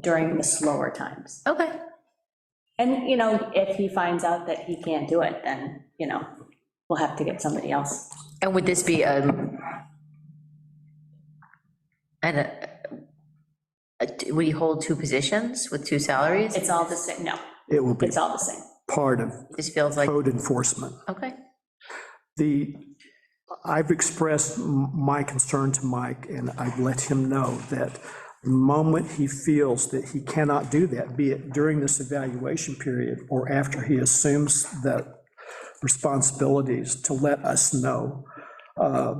during the slower times. Okay. And, you know, if he finds out that he can't do it, then, you know, we'll have to get somebody else. And would this be, um, and, uh, uh, would he hold two positions with two salaries? It's all the same, no, It will be it's all the same. part of This feels like, code enforcement. okay, The, I've expressed m- my concern to Mike, and I've let him know that the moment he feels that he cannot do that, be it during this evaluation period or after he assumes that responsibilities, to let us know. Uh,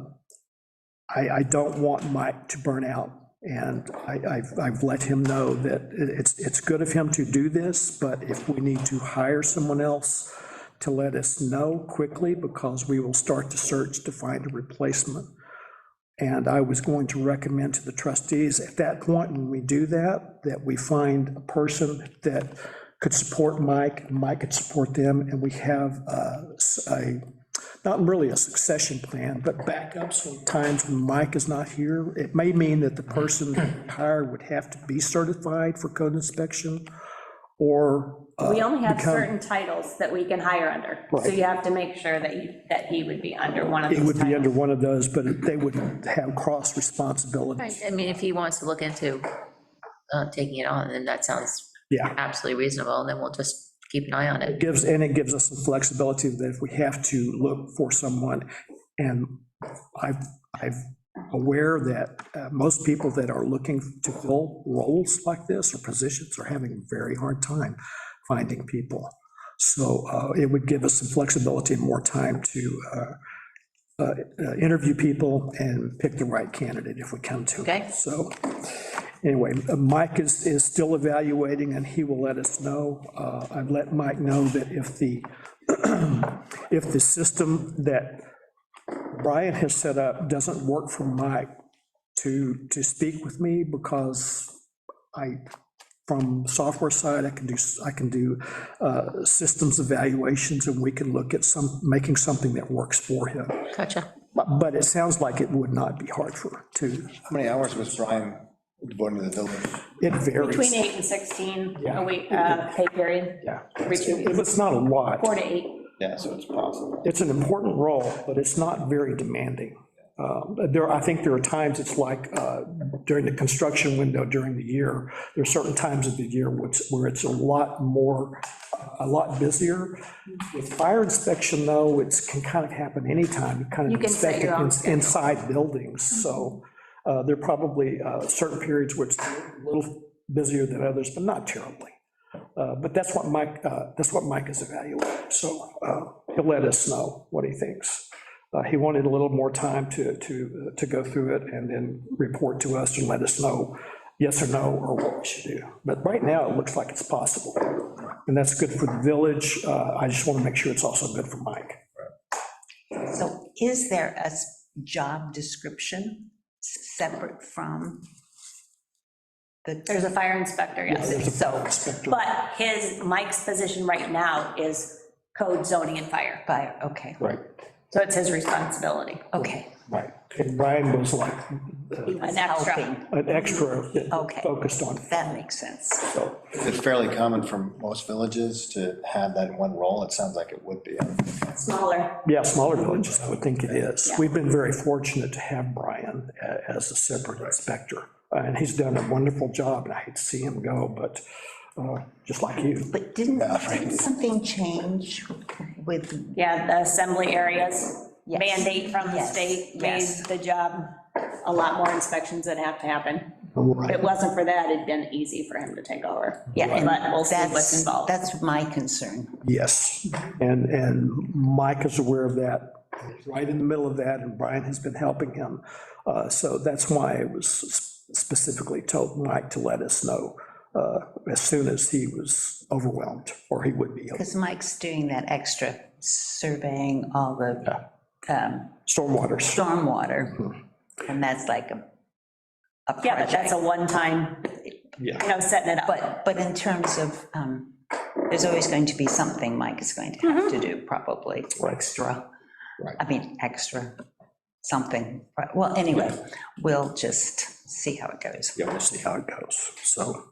I, I don't want Mike to burn out, and I, I've, I've let him know that it- it's, it's good of him to do this, but if we need to hire someone else, to let us know quickly, because we will start the search to find a replacement. And I was going to recommend to the trustees, at that point, when we do that, that we find a person that could support Mike, and Mike could support them, and we have uh, s- a, not really a succession plan, but backups for times when Mike is not here. It may mean that the person that we hire would have to be certified for code inspection, or. uh, We only have become- certain titles that we can hire under, so Right. you have to make sure that you, that he would be under one of It those would be titles. under one of those, but they would have cross responsibility. Right, I mean, if he wants to look into uh, taking it on, then that sounds Yeah. absolutely reasonable, and then we'll just keep an eye on It it. Gives, and it gives us some flexibility that if we have to look for someone, and I've, I've aware that uh, most people that are looking to fill roles like this or positions are having a very hard time finding people. So uh, it would give us some flexibility and more time to uh, uh, uh, interview people and pick the right candidate if we come to. it. Okay. So anyway, uh, Mike is, is still evaluating and he will let us know. Uh, I've let Mike know that if the, if the system that Brian has set up doesn't work for Mike to, to speak with me because I, from software side, I can do, I can do uh, systems evaluations and we can look at some, making something that works for him. Gotcha. But but it sounds like it would not be hard for, to, How many hours was Brian devoted to the building? it varies. Between eight and 16, Yeah. a week, uh, pay period, Yeah. Which It- It's not a lot. four to eight. Yeah, so it's possible. it's an important role, but it's not very demanding. Um, There, I think there are times, it's like uh, during the construction window during the year, there are certain times of the year which- where it's a lot more, a lot busier. With fire inspection, though, it can kind of happen anytime, you kind You of can set inspect your own Mm-hmm. it in- inside buildings, so uh, there are probably uh, certain periods where it's a little busier than others, but not terribly. Uh, But that's what Mike, uh, that's what Mike is evaluating, so uh, he'll let us know what he thinks. Uh, He wanted a little more time to, to, to go through it and then report to us and let us know yes or no, or what we should do. But right now, it looks like it's possible, and that's good for the village. Uh, I just want to make sure it's also good for Mike. So is there a s- job description separate from the, There's a fire inspector, yes. There's a so, inspector. But his, Mike's position right now is code zoning and fire. fire, okay, Right, So it's his responsibility, okay, right. And Brian was like uh, an extra. helping. an extra that Okay. focused on, that makes sense. so. It's fairly common for most villages to have that in one role. It sounds like it would be. Smaller, Yeah, smaller villages, I would think it is. Yeah. We've been very fortunate to have Brian a- as a separate inspector, uh, and he's done a wonderful job, and I hate to see him go, but uh, just like you. But didn't, didn't something change with, yeah, the assembly areas, Yes. mandate from the Yes, state made yes. the job a lot more inspections that have to happen. If Right. it wasn't for that, it'd been easy for him to take over. yeah, But we'll and see what's that's, involved. that's my concern. Yes, and, and Mike is aware of that, He's right in the middle of that, and Brian has been helping him. Uh, So that's why I was specifically told Mike to let us know uh, as soon as he was overwhelmed, or he would be. Because Mike's doing that extra surveying all the um, Stormwaters. stormwater, and that's like a, a project. Yeah, but that's a one-time, you Yeah. know, setting it up. But, but in terms of, um, there's always going to be something Mike is going to have to do, probably, Right. extra. Right. I mean, extra, something. Right, Well, anyway, we'll just see how it goes. Yeah, we'll see how it goes, so.